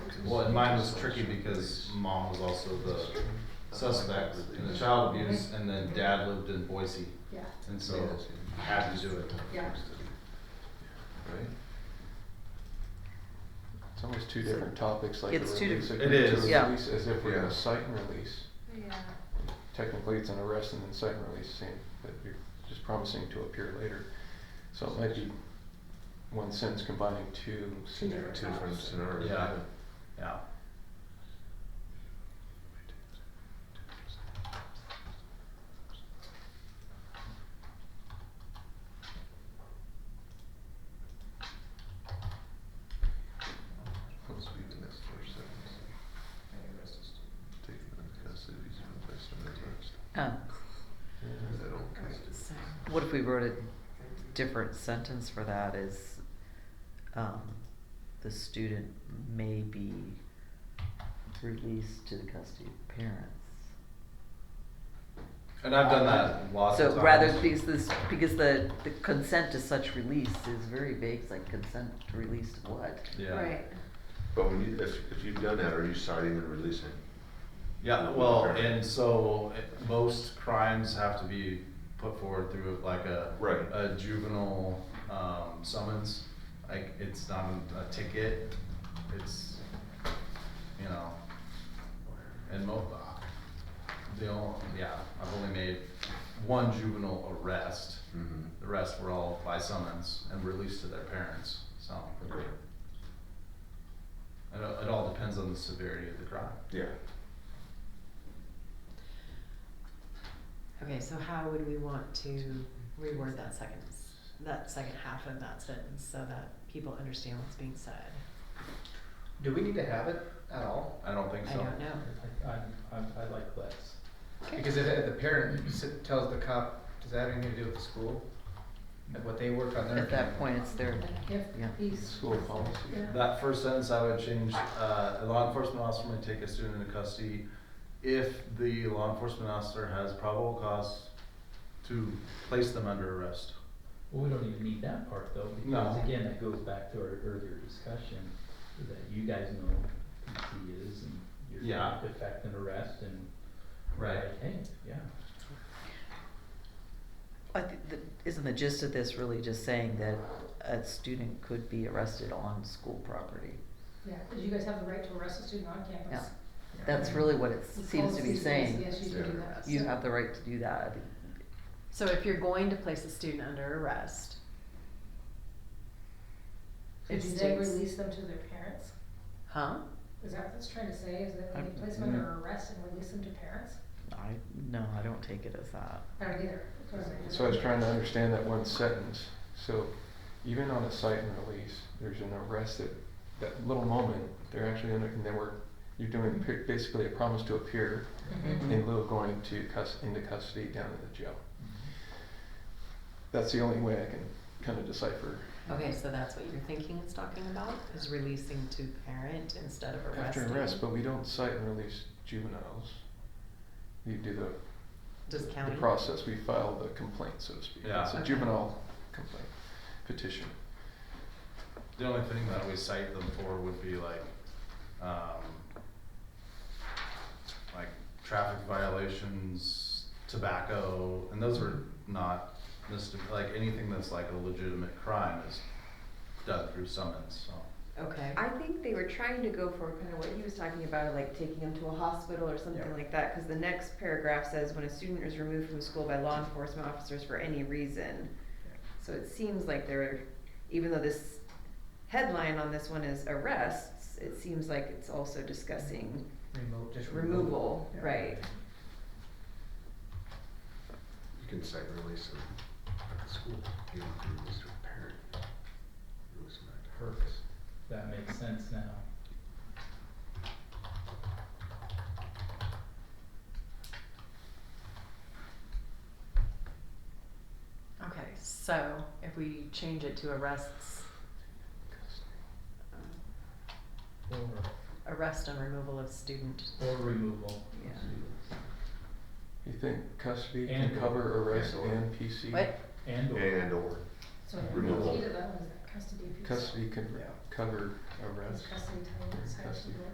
Well, and mine was tricky because mom was also the suspect in the child abuse, and then dad lived in Boise, Yeah, and so I had to do it. yeah. Right? It's almost two different topics, like a It's two release, a different- It is. to Yeah. release as if we're Yeah. gonna cite and release. Yeah. Technically, it's an arrest and then cite and release, same, but you're just promising to appear later. So it might be one sentence combining two scenarios. Two different scenarios. Yeah. Yeah. Let's read the next four sentence. Taken into custody, he's been placed under arrest. Oh, Is that okay? so what if we wrote a different sentence for that is, um, the student may be released to the custody of parents? And I've done that lots of So times. rather, because this, because the, the consent to such release is very vague, it's like consent to release to what? Yeah. Right. But when you, if, if you've done that, are you citing and releasing? Yeah, well, and so it- most crimes have to be put forward through like a Right. a juvenile um, summons. Like it's not a ticket. It's you know, and mo- the only, yeah, I've only made one juvenile arrest. Mm-hmm. The rest were all by summons and released to their parents. So it, it all depends on the severity of the crime. Yeah. Okay, so how would we want to reword that second, s- that second half of that sentence so that people understand what's being said? Do we need to have it at all? I don't think I so. don't know. I, I'm- I'm- I like less. Okay. Because if if the parent s- tells the cop, does that have anything to do with the school? Like what they work on their. At that point, it's their, If yeah. he's. School policy. Yeah. That first sentence I would change, uh, a law enforcement officer may take a student into custody if the law enforcement officer has probable cause to place them under arrest. Well, we don't even need that part though, because No. again, that goes back to our earlier discussion, that you guys know who he is and you're Yeah. gonna effect an arrest and. like, Hey, yeah. I thi- the- isn't the gist of this really just saying that a student could be arrested on school property? Yeah, because you guys have the right to arrest a student on campus. That's really what it The seems to policy be says saying. Yes, you can do that. You So- have the right to do that. I think So if you're going to place a student under arrest, So It do they states- release them to their parents? huh? Is that what it's trying to say, is that I- when you place them under arrest and release them to parents? I, no, I don't take it as that. I don't either. That's what So I was trying to understand that one sentence. So even on a cite and release, there's an arrest that, that little moment, they're actually under, and then we're, you're doing pe- basically a promise to appear Mm-hmm. in lieu of going to cus, into custody down in the jail. That's the only way I can kind of decipher Okay, so that's what you're thinking it's talking about, is releasing to parent instead of arresting? after arrest, but we don't cite and release juveniles. You do the, Does the county? process, we file the complaint, so to speak. Yeah. It's a Okay. juvenile complaint, petition. The only thing that we cite them for would be like, um, like traffic violations, tobacco, and those are not misdemeanor, like anything that's like a legitimate crime is done through summons, so. Okay. I think they were trying to go for kind of what he was talking about, like taking him to a hospital or something Yeah. like that, because the next paragraph says, when a student is removed from school by law enforcement officers for any reason. So it seems like they're, even though this headline on this one is arrests, it seems like it's also discussing Remote, just removal. removal, Yeah. right? You can cite and release them at the school. You don't have to release to a parent. Release them at parents. Perfect. That makes sense now. Okay, so if we change it to arrests, Or, arrest and removal of student. or removal. Yeah. You think custody And can or. cover arrest And or. and PC? What? And or. And or. So I think Removal. the key to that one is that custody piece. Custody can cover arrest. Custody time, it's actually Custody.